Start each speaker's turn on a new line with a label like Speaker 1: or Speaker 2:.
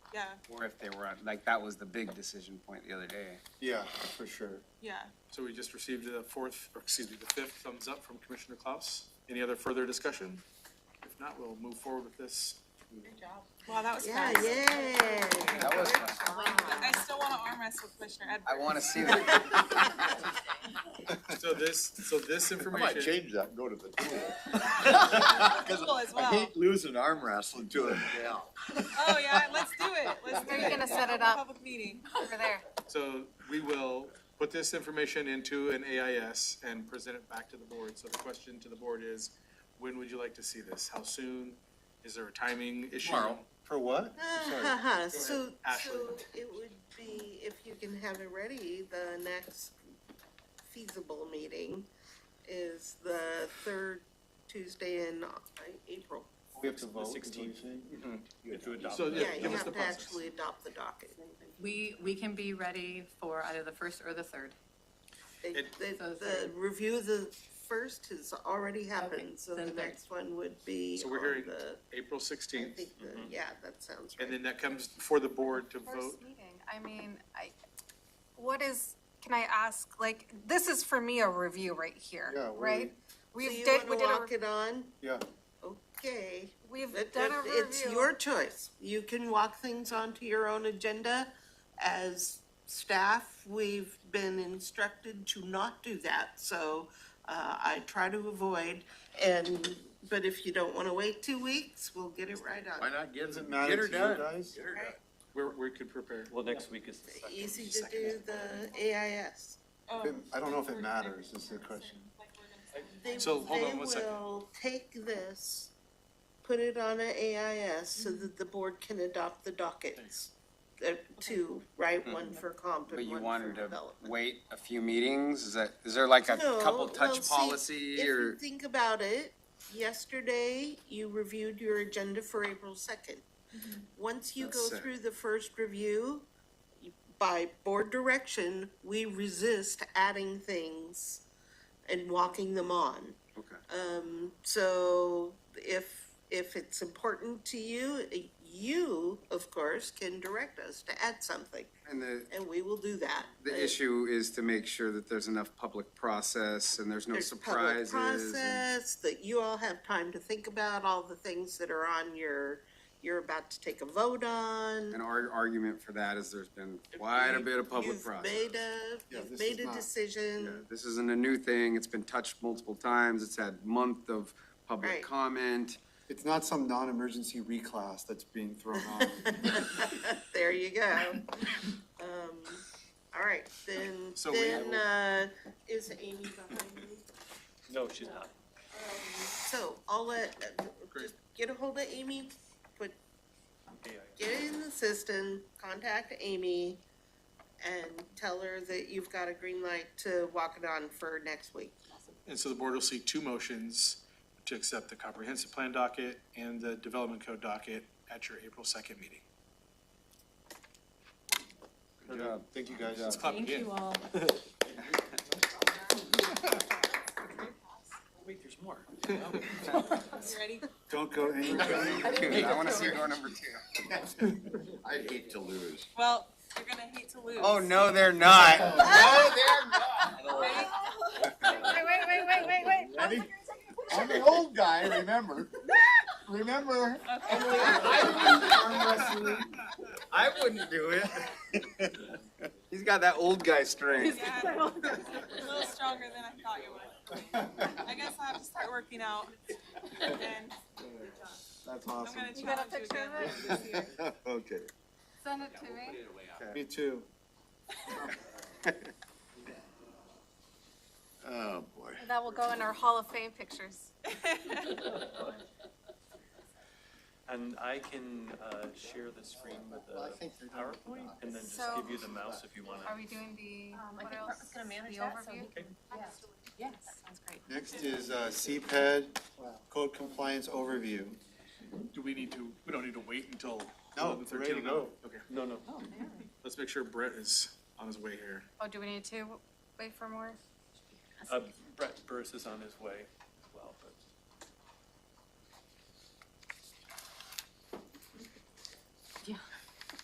Speaker 1: Yeah,
Speaker 2: or if they were, on- like, that was the big decision point the other day.
Speaker 3: Yeah, for sure.
Speaker 1: yeah.
Speaker 4: So we just received the fourth, or excuse me, the fifth thumbs up from Commissioner Klaus. Any other further discussion? If not, we'll move forward with this.
Speaker 1: Good job. Wow, that was
Speaker 5: Yeah,
Speaker 1: fast.
Speaker 5: yay.
Speaker 2: That was fun.
Speaker 1: But I still want to arm wrestle Commissioner
Speaker 2: I
Speaker 1: Edwards.
Speaker 2: wanna see that.
Speaker 4: So this, so this
Speaker 3: I might
Speaker 4: information,
Speaker 3: change that and go to the tool.
Speaker 1: Cool as
Speaker 3: I
Speaker 1: well.
Speaker 3: hate losing arm wrestling to a gal.
Speaker 1: Oh, yeah, let's do it. Let's do
Speaker 5: Where
Speaker 1: it.
Speaker 5: are you gonna set
Speaker 1: Have
Speaker 5: it
Speaker 1: a
Speaker 5: up?
Speaker 1: Public meeting.
Speaker 5: Over there.
Speaker 4: so we will put this information into an AIS and present it back to the board. So the question to the board is, when would you like to see this? How soon? Is there a timing issue?
Speaker 3: Tomorrow. For what?
Speaker 5: Uh-huh, so,
Speaker 4: Ashley.
Speaker 5: so it would be, if you can have it ready, the next feasible meeting is the third Tuesday in uh, April.
Speaker 3: We have to vote.
Speaker 4: Mm-hmm. So,
Speaker 5: Yeah,
Speaker 4: yeah,
Speaker 5: you
Speaker 4: give us
Speaker 5: have
Speaker 4: the
Speaker 5: to
Speaker 4: process.
Speaker 5: actually adopt the docket.
Speaker 6: We, we can be ready for either the first or the third.
Speaker 5: They-
Speaker 4: It-
Speaker 5: they-
Speaker 6: So
Speaker 5: The review of the first has already happened, so
Speaker 6: then
Speaker 5: the
Speaker 6: third.
Speaker 5: next one would be
Speaker 4: So
Speaker 5: on
Speaker 4: we're hearing
Speaker 5: the,
Speaker 4: April
Speaker 5: I
Speaker 4: sixteenth,
Speaker 5: think, the- yeah, that sounds right.
Speaker 4: and then that comes before the board to vote.
Speaker 7: First meeting, I mean, I, what is, can I ask, like, this is for me a review right
Speaker 3: Yeah,
Speaker 7: here,
Speaker 3: we-
Speaker 7: right?
Speaker 5: So
Speaker 7: We've
Speaker 5: you
Speaker 7: did, we
Speaker 5: wanna
Speaker 7: did a,
Speaker 5: walk it on?
Speaker 3: Yeah,
Speaker 5: Okay.
Speaker 7: we've
Speaker 5: It-
Speaker 7: done a
Speaker 5: it-
Speaker 7: review.
Speaker 5: It's your choice. You can walk things onto your own agenda. As staff, we've been instructed to not do that, so uh, I try to avoid. And, but if you don't want to wait two weeks, we'll get it right
Speaker 3: why
Speaker 5: on.
Speaker 3: not get,
Speaker 4: Doesn't
Speaker 3: get her
Speaker 4: matter to you
Speaker 3: done?
Speaker 4: guys.
Speaker 3: Get her done.
Speaker 4: Where, where we could prepare.
Speaker 8: Well, next week is the second.
Speaker 5: Easy to do the AIS.
Speaker 1: Oh,
Speaker 3: Then I don't know if it
Speaker 1: we're-
Speaker 3: matters, is the question.
Speaker 1: Like, we're gonna set-
Speaker 5: They-
Speaker 4: So, hold on one second.
Speaker 5: They will take this, put it on an AIS so
Speaker 2: Mm-hmm.
Speaker 5: that the board can adopt the dockets. Uh, Two, right, one for comp
Speaker 2: Mm-hmm. But
Speaker 5: and
Speaker 2: you
Speaker 5: one for
Speaker 2: wanted to
Speaker 5: development.
Speaker 2: wait a few meetings? Is that, is there like a
Speaker 5: No,
Speaker 2: couple
Speaker 5: well,
Speaker 2: touch
Speaker 5: see,
Speaker 2: policy
Speaker 5: If you
Speaker 2: or?
Speaker 5: think about it, yesterday you reviewed your agenda for April second.
Speaker 2: Mm-hmm.
Speaker 5: Once you go
Speaker 2: That's it.
Speaker 5: through the first review, by board direction, we resist adding things and walking them on.
Speaker 2: Okay.
Speaker 5: Um, so if, if it's important to you, you, of course, can direct us to add something,
Speaker 2: And the,
Speaker 5: and we will do that. Uh,
Speaker 2: the issue is to make sure that there's enough public process and there's no
Speaker 5: There's public
Speaker 2: surprises. and-
Speaker 5: process that you all have time to think about, all the things that are on your, you're about to take a vote on.
Speaker 2: And our argument for that is there's been quite a bit of public
Speaker 5: You've
Speaker 2: process.
Speaker 5: made a,
Speaker 3: Yeah,
Speaker 5: you've
Speaker 3: this is
Speaker 5: made a
Speaker 3: not-
Speaker 2: Yeah,
Speaker 5: decision.
Speaker 2: This isn't a new thing. It's been touched multiple times. It's had month of
Speaker 5: Right.
Speaker 2: public comment.
Speaker 3: It's not some non-emergency reclass that's being thrown on.
Speaker 5: There you go. Um, all right, then,
Speaker 4: So we
Speaker 5: then, uh, is Amy behind me?
Speaker 8: No, she's not.
Speaker 5: So I'll let, uh,
Speaker 4: Great.
Speaker 5: just get a hold of Amy, put,
Speaker 8: Yeah,
Speaker 5: get it in the system, contact Amy and tell her that you've got a green light to walk it on for next week.
Speaker 4: And so the board will see two motions to accept the comprehensive plan docket and the development code docket at your April second meeting.
Speaker 2: Good job.
Speaker 3: Thank you guys.
Speaker 4: Let's clap
Speaker 6: Thank
Speaker 4: again.
Speaker 6: you all.
Speaker 8: Wait, there's more.
Speaker 1: You ready?
Speaker 3: Don't go anywhere.
Speaker 2: Dude, I want to see door number two.
Speaker 3: I hate to lose.
Speaker 1: Well, you're gonna hate to lose.
Speaker 2: Oh, no, they're not.
Speaker 1: Ready?
Speaker 7: Wait, wait, wait, wait, wait, wait.
Speaker 3: Ready? I'm the old guy, remember? Remember?
Speaker 2: I wouldn't do it. He's got that old guy strength.
Speaker 1: Yeah, a little stronger than I thought you would. I guess I'll have to start working out. And
Speaker 3: That's
Speaker 1: I'm
Speaker 3: awesome.
Speaker 1: gonna
Speaker 7: You got a
Speaker 1: challenge you
Speaker 7: picture
Speaker 1: again
Speaker 7: of
Speaker 1: later this year.
Speaker 3: Okay,
Speaker 7: Send it to me.
Speaker 3: me too. Oh, boy.
Speaker 7: That will go in our Hall of Fame pictures.
Speaker 8: And I can, uh, share the screen with
Speaker 3: Well, I
Speaker 8: the
Speaker 3: think they're gonna-
Speaker 8: PowerPoint and then just
Speaker 7: So-
Speaker 8: give you the mouse if you wanna.
Speaker 7: Are we doing the, what else? The overview?
Speaker 6: Yes, sounds great.
Speaker 3: Next is uh, CPED code compliance overview.
Speaker 4: Do we need to, we don't need to wait until
Speaker 3: No,
Speaker 4: eleven
Speaker 3: we're ready to
Speaker 4: thirteen?
Speaker 3: go.
Speaker 4: Okay,
Speaker 8: No, no.
Speaker 4: let's make sure Brett is on his way here.
Speaker 7: Oh, do we need to wait for more?
Speaker 8: Uh, Brett Burris is on his way.